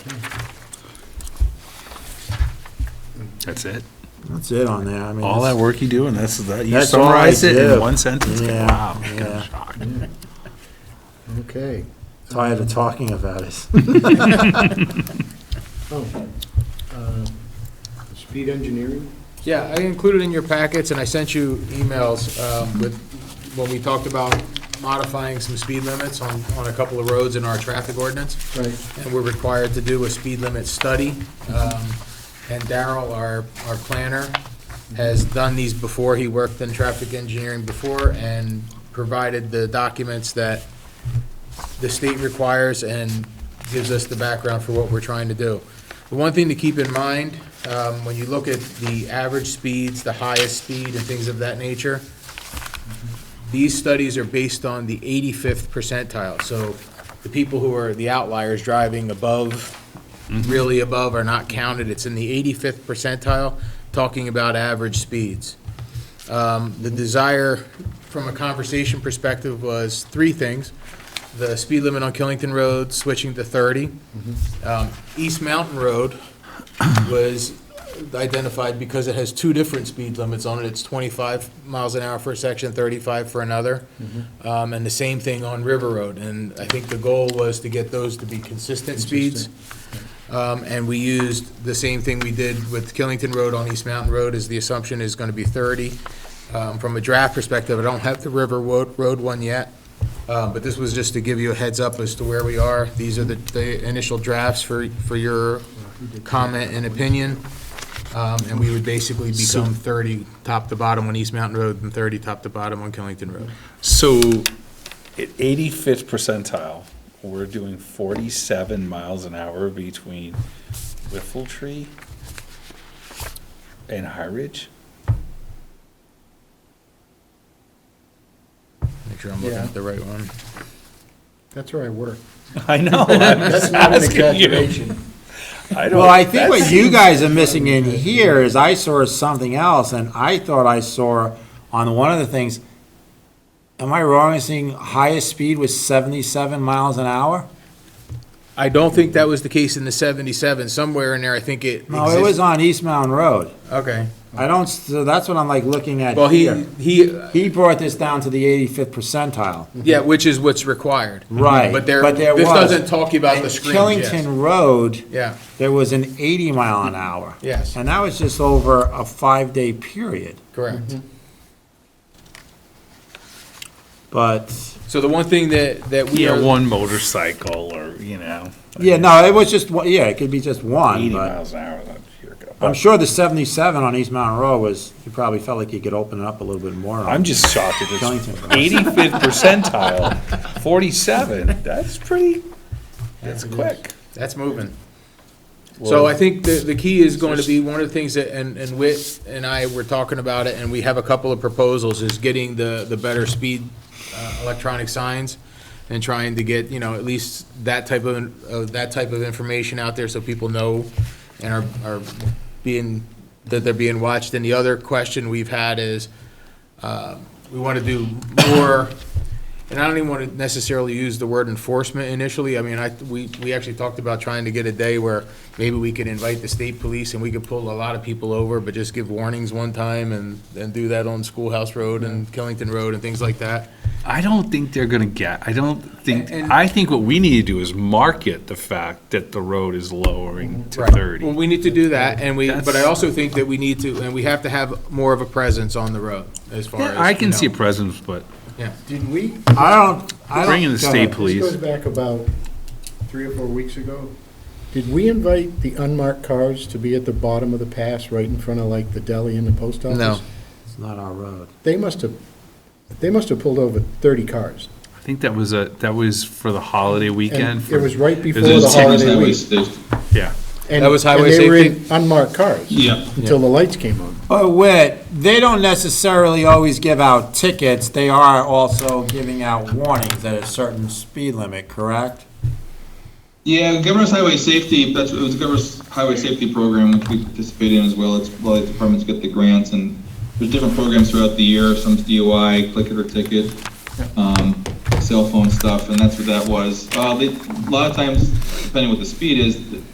That's it? That's it on there, I mean. All that work you do and that's, that you That's all I summarize it in do. one sentence? Yeah, Wow. yeah. shocked. Okay. Tired of talking about it. Oh, uh, Speed engineering? Yeah, I included in your packets, and I sent you emails um, with, when we talked about modifying some speed limits on, on a couple of roads in our traffic ordinance. Right. And we're required to do a speed limit study. Um, And Daryl, our, our planner, has done these before. He worked in traffic engineering before and provided the documents that the state requires and gives us the background for what we're trying to do. The one thing to keep in mind, um, when you look at the average speeds, the highest speed and things of that nature, these studies are based on the 85th percentile. So the people who are the outliers driving above, really above, are not counted. It's in the 85th percentile, talking about average speeds. Um, The desire, from a conversation perspective, was three things. The speed limit on Killington Road switching to 30. Um, East Mountain Road was identified because it has two different speed limits on it. It's 25 miles an hour for a section, 35 for another. Um, And the same thing on River Road. And I think the goal was to get those to be consistent speeds. Um, And we used the same thing we did with Killington Road on East Mountain Road, is the assumption is going to be 30. Um, From a draft perspective, I don't have the River Wo- Road one yet, uh, but this was just to give you a heads up as to where we are. These are the- the initial drafts for for your comment and opinion, Um, and we would basically become 30 top to bottom on East Mountain Road and 30 top to bottom on Killington Road. So at eighty-fifth percentile, we're doing forty-seven miles an hour between Whiffle Tree and High Ridge? Make sure I'm looking Yeah. at the right one. That's where I work. I know, I'm That's just not an asking you. exaggeration. I don't- Well, I think that's- what you guys are missing in here is I saw something else, and I thought I saw on one of the things, am I wrong in seeing highest speed was seventy-seven miles an hour? I don't think that was the case in the 77, somewhere in there, I think it No, it was exists. on East Mountain Road. Okay. I don't, so that's what I'm like looking at Well, he, here. he, He brought this down to the eighty-fifth percentile. yeah, which is what's required. Right, But there, but there this was. doesn't talk about In the screens, yes. Killington Road, Yeah, there was an eighty mile an hour. Yes. And that was just over a five-day period, correct. Mm-hmm. but. So the one thing that, that we Yeah, are, one motorcycle or, you know. Yeah, no, it was just, one- yeah, it could be just one, Eighty but miles an hour, that's here we go. I'm sure the seventy-seven on East Mountain Road was, you probably felt like you could open it up a little bit more. I'm just shocked at this Killington. eighty-fifth percentile, forty-seven, that's pretty, that's quick. that's moving. So I think the, the key is going to be, one of the things that, and, and Whit and I were talking about it, and we have a couple of proposals, is getting the, the better speed uh, electronic signs and trying to get, you know, at least that type of, of that type of information out there so people know and are, are being, that they're being watched. And the other question we've had is, uh, we want to do more, and I don't even want to necessarily use the word enforcement initially. I mean, I, we, we actually talked about trying to get a day where maybe we could invite the state police and we could pull a lot of people over, but just give warnings one time and, and do that on Schoolhouse Road and Killington Road and things like that. I don't think they're gonna get, I don't think, And- I think what we need to do is market the fact that the road is lowering to Right. Well, thirty. we need to do that, and we, but I That's- also think that we need to, and we have to have more of a presence on the road as far as. Yeah, I you can know. see a presence, but Did we, I don't, I don't. bring in the go state ahead. this goes police. back about three or four weeks ago. Did we invite the unmarked cars to be at the bottom of the pass, right in front of like the deli and the post office? No. It's not our road. They must have, they must have pulled over 30 cars. I think that was a, that was for the holiday weekend. And for- it was right before a the ticket holiday That week. was- that was- Yeah, And- That was highway And they were in safety? unmarked cars Yeah, until the lights came on. But Whit, they don't necessarily always give out tickets, they are also giving out warnings at a certain speed limit, correct? yeah, governor's highway safety, that's, it was the governor's highway safety program, which we participate in as well, it's, well, the departments get the grants, and there's different programs throughout the year, some's DOI, click it or ticket, um, cell phone stuff, and that's what that was. Uh, they, a lot of times, depending what the speed is,